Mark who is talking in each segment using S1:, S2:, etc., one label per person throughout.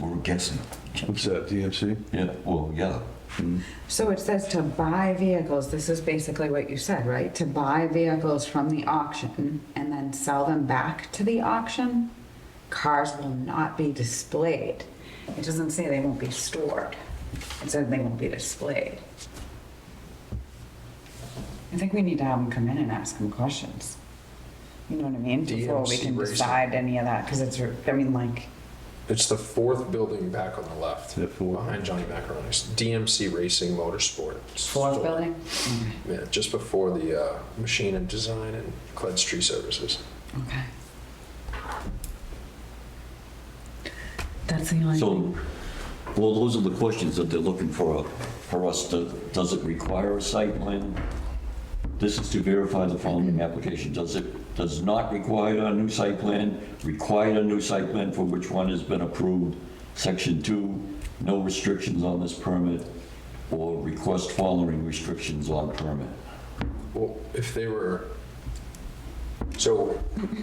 S1: We're guessing.
S2: What's that, DMC?
S1: Yeah, well, yeah.
S3: So it says to buy vehicles, this is basically what you said, right? To buy vehicles from the auction and then sell them back to the auction? Cars will not be displayed. It doesn't say they won't be stored. It said they won't be displayed. I think we need to have them come in and ask them questions. You know what I mean? Before we
S4: DMC
S3: can
S4: Racing.
S3: decide any of that, because it's, I mean, like,
S4: It's the fourth building back on the left,
S2: The fourth.
S4: behind Johnny Macaroni's. DMC Racing Motorsport.
S3: fourth
S4: store.
S3: building?
S4: Yeah, just before the uh, Machine and Design and Cled's Tree Services.
S3: Okay. That's the only.
S1: So, well, those are the questions that they're looking for, uh, for us to, does it require a site plan? This is to verify the following application. Does it, does not require a new site plan, required a new site plan for which one has been approved, section two, no restrictions on this permit, or request following restrictions on permit.
S4: Well, if they were, so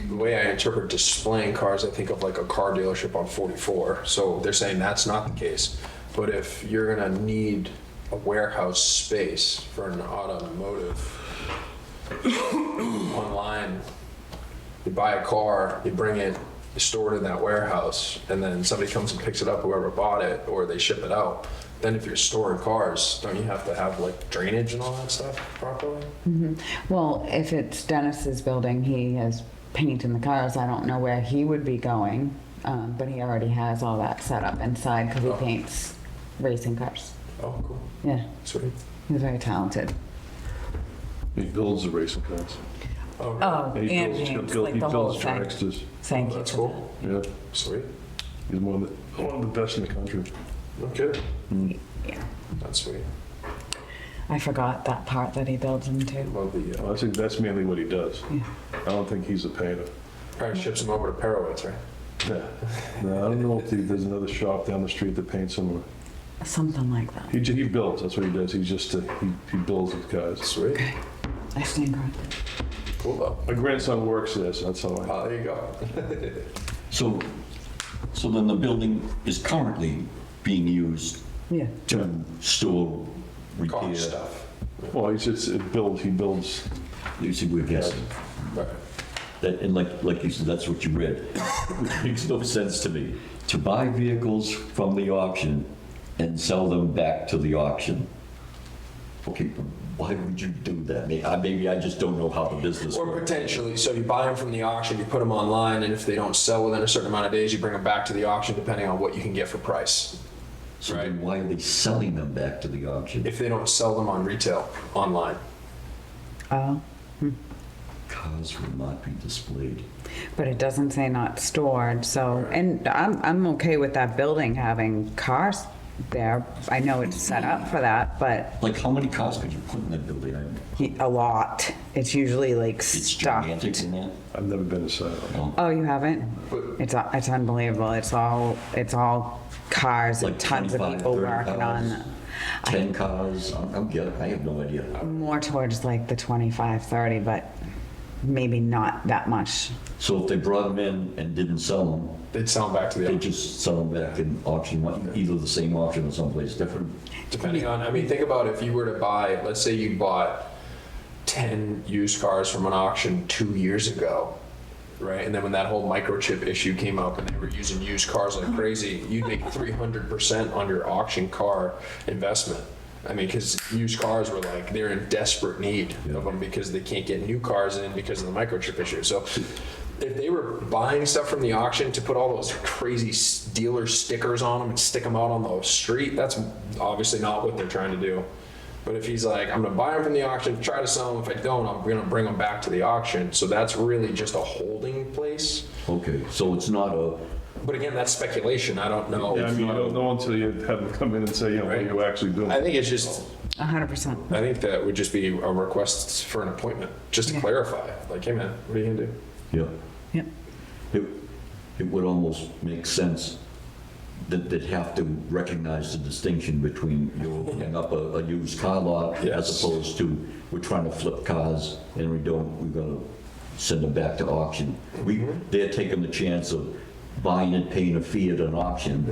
S4: the way I interpret displaying cars, I think of like a car dealership on 44. So they're saying that's not the case. But if you're gonna need a warehouse space for an automotive online, you buy a car, you bring it, you store it in that warehouse, and then somebody comes and picks it up, whoever bought it, or they ship it out. Then if you're storing cars, don't you have to have like drainage and all that stuff properly?
S3: Well, if it's Dennis's building, he has paint in the cars. I don't know where he would be going, um, but he already has all that set up inside because he
S4: Oh.
S3: paints racing cars.
S4: Oh, cool.
S3: Yeah,
S4: Sweet.
S3: he's very talented.
S2: He builds the racing cars.
S4: Oh,
S3: Oh,
S2: He
S3: and
S2: builds-
S3: James,
S2: build-
S3: like
S2: he
S3: the whole
S2: builds
S3: thing.
S2: Tracksters.
S3: Thank you
S4: that's
S3: for
S4: cool.
S2: Yeah,
S4: Sweet.
S2: he's one of the, one of the best in the country.
S4: Okay.
S3: that. Yeah.
S4: That's sweet.
S3: I forgot that part that he builds them too.
S4: Love the, uh,
S2: I think that's mainly what he does.
S3: Yeah.
S2: I don't think he's a painter.
S4: probably ships them over to Perowitz, right?
S2: Yeah. No, I don't know if he- there's another shop down the street that paints similar.
S3: Something like that.
S2: He, ju- he builds, that's what he does. He just, uh, he, he builds these cars.
S4: Sweet.
S3: I stand corrected.
S4: Cool though.
S2: My grandson works there, so that's how I,
S4: Ah, there you go.
S1: So, so then the building is currently being used
S3: Yeah.
S1: to store,
S4: Car
S1: repair.
S4: stuff.
S2: well, he's just, it builds, he builds.
S1: You see, we're guessing.
S4: Right.
S1: That, and like, like you said, that's what you read, which makes no sense to me. To buy vehicles from the auction and sell them back to the auction. Okay, but why would you do that? May- I- Maybe I just don't know how the business
S4: Or
S1: works.
S4: potentially, so you buy them from the auction, you put them online, and if they don't sell within a certain amount of days, you bring them back to the auction, depending on what you can get for price.
S1: So then why are they selling them back to the auction?
S4: If they don't sell them on retail, online.
S3: Oh,
S1: Cars will not be displayed.
S3: but it doesn't say not stored. So, and I'm I'm okay with that building having cars there. I know it's set up for that, but
S1: Like, how many cars could you put in that building? I-
S3: He- a lot. It's usually like
S1: It's
S3: stuffed.
S1: gigantic in there.
S2: I've never been inside.
S3: Oh, you haven't? It's it's unbelievable. It's all it's all cars and
S1: Like
S3: tons of
S1: 25,
S3: people
S1: 30
S3: working
S1: cars.
S3: on. I,
S1: 10 cars, I'm, I'm, get- I have no idea.
S3: more towards like the 25, 30, but maybe not that much.
S1: So if they brought them in and didn't sell them,
S4: They'd sell them back to the
S1: They
S4: auction.
S1: just sell them back in auction, one- either the same auction or someplace different.
S4: Depending on, I mean, think about if you were to buy, let's say you bought 10 used cars from an auction two years ago, right? And then when that whole microchip issue came up and they were using used cars like crazy, you'd make 300% on your auction car investment. I mean, because used cars were like, they're in desperate need of them because they can't get new cars in because of the microchip issue. So if they were buying stuff from the auction to put all those crazy s- dealer stickers on them and stick them out on the street, that's obviously not what they're trying to do. But if he's like, I'm gonna buy them from the auction, try to sell them. If I don't, I'm gonna bring them back to the auction. So that's really just a holding place.
S1: Okay, so it's not a,
S4: But again, that's speculation. I don't know.
S2: Yeah, I mean, you don't know until you have them come in and say, you know, what are you actually doing?
S4: I think it's just,
S3: 100%.
S4: I think that would just be a request for an appointment, just to clarify. Like, hey man, what are you gonna do?
S1: yeah,
S3: Yep.
S1: it, it would almost make sense that they'd have to recognize the distinction between you're opening up a, a used car lot as
S4: Yes.
S1: opposed to, we're trying to flip cars and we don't, we're gonna send them Mm-hmm. back to auction. We, they're taking the chance of buying it, paying a fee at an auction,